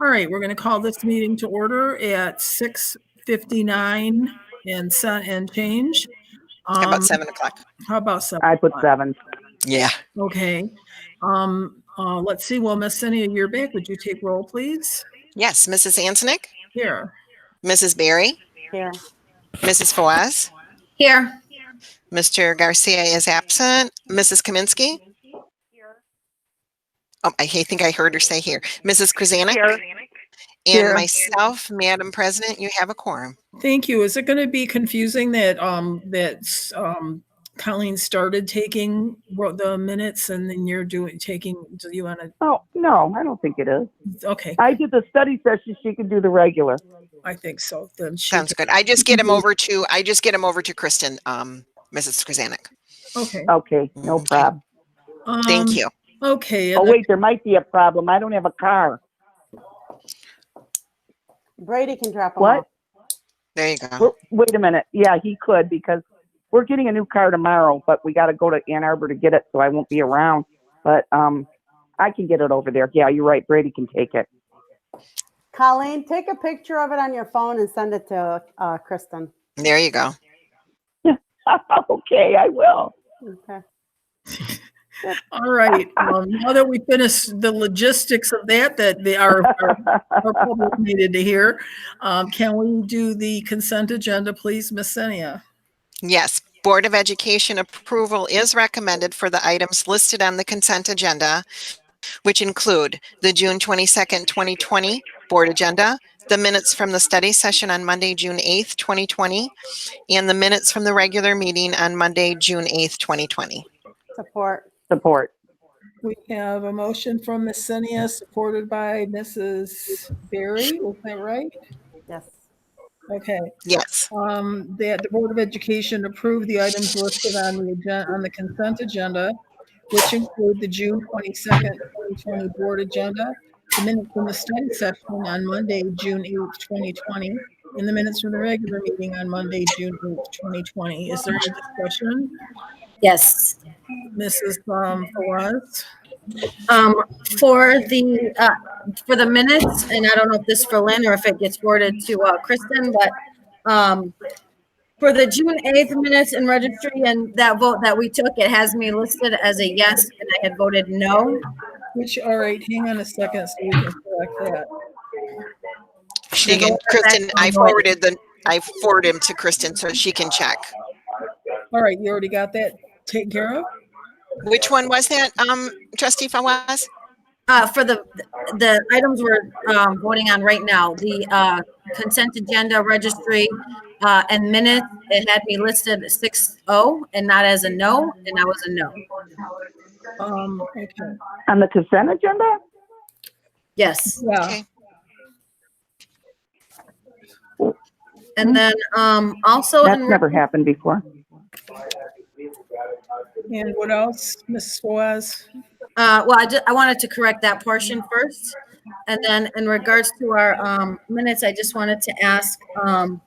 All right, we're going to call this meeting to order at 6:59 and sen- and change. How Um, about seven o'clock? How about seven? I put o'clock? seven. Yeah. Okay. Um, uh, let's see, well, Miss Cynthia Yearback, would you take roll, please? Yes, Mrs. Antonick, Here. Mrs. Barry, Here. Mrs. Fawaz, Here. Mr. Garcia is absent, Mrs. Kaminsky. Oh, I ha- think I heard her say here. Mrs. Krasanik? And Here. myself, Madam President, you have a quorum. Thank you. Is it going to be confusing that, um, that, um, Colleen started taking ro- the minutes and then you're doing, taking, do you want Oh, no, I don't think it is. to, okay, I did the study session. She can do the regular. I think so. Then she, Sounds good. I just get him over to, I just get him over to Kristen, um, Mrs. Krasanik. okay. Okay, Mm-hmm. no problem. Thank Um, you. Okay. Oh, and the- wait, there might be a problem. I don't have a car. Brady can drop them What? off. There you go. Well, Wait a minute. Yeah, he could because we're getting a new car tomorrow, but we got to go to Ann Arbor to get it, so I won't be around. But, um, I can get it over there. Yeah, you're right. Brady can take it. Colleen, take a picture of it on your phone and send it to uh, Kristen. There you go. Okay, I will. Okay. All right, um, now that we finished the logistics of that, that they are, our public needed to hear, um, can we do the consent agenda, please, Miss Senia? Yes, Board of Education approval is recommended for the items listed on the consent agenda, which include the June 22nd, 2020 Board Agenda, the minutes from the study session on Monday, June 8th, 2020, and the minutes from the regular meeting on Monday, June 8th, 2020. Support. Support. We have a motion from Miss Senia, supported by Mrs. Berry, is that right? Yes. Okay, Yes, um, that the Board of Education approved the items listed on the agenda, on the consent agenda, which include the June twenty-second, twenty twenty board agenda, the minutes from the study session on Monday, June eighth, twenty twenty, and the minutes from the regular meeting on Monday, June eighth, twenty twenty. Is there a discussion? Yes. Mrs. um, Fawaz? Um, for the, uh, for the minutes, and I don't know if this is for Lynn or if it gets forwarded to, uh, Kristen, but, um, for the June eighth minutes in registry and that vote that we took, it has me listed as a yes and I had voted no. Which, all right, hang on a second so we can correct that. she can, Kristen, I forwarded the, I forwarded him to Kristen so she can check. All right, you already got that taken care of? Which one was that, um, trustee Fawaz? Uh, for the, the items we're, um, voting on right now, the, uh, consent agenda registry, uh, and minutes, it had me listed six oh and not as a no, and I was a no. Um, okay, On the consent agenda? Yes. yeah. Okay. And then um Oh, also Mm-hmm. That's in never happened before. And what else, Mrs. Fawaz? uh well, I just I wanted to correct that portion first. And then in regards to our um minutes, I just wanted to ask um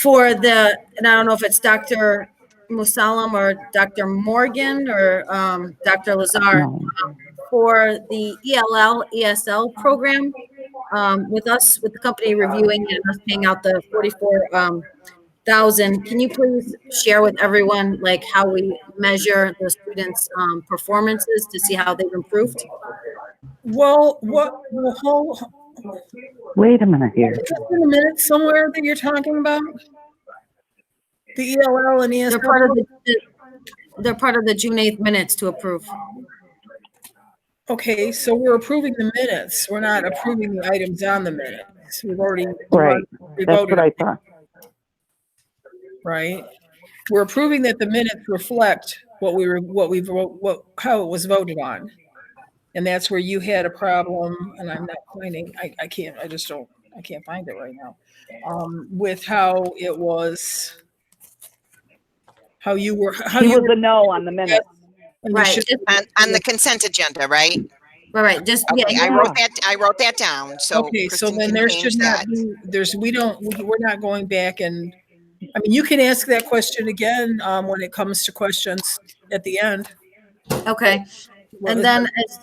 for the and I don't know if it's Dr. Musalam or Dr. Morgan or um Dr. Lazar um, No. for the E ELL ESL program um with us with the company reviewing and us paying out the 44 um thousand, can you please share with everyone, like, how we measure the students' um, performances to see how they've improved? Well, what, the whole, Wait a minute here. is this in the minutes somewhere that you're talking about? The ELL and E They're part of ESL? the, they're part of the June eighth minutes to approve. Okay, so we're approving the minutes. We're not approving the items on the minutes. We've already. Right, we That's voted, what I thought. Right? We're approving that the minutes reflect what we were, what we, vote- what, how it was voted on. And that's where you had a problem, and I'm not finding, I, I can't, I just don't, I can't find it right now. Um, with how it was, how you were, how He you. was a no on the minute. and you Right, should- just- On, on the consent agenda, right? right, right, just, Okay, I yeah, wrote that, I wrote that down, so. Okay, so Kristen then can there change should not that. be, there's, we don't, we- we're not going back and, I mean, you can ask that question again, um, when it comes to questions at the end. okay. What And is then as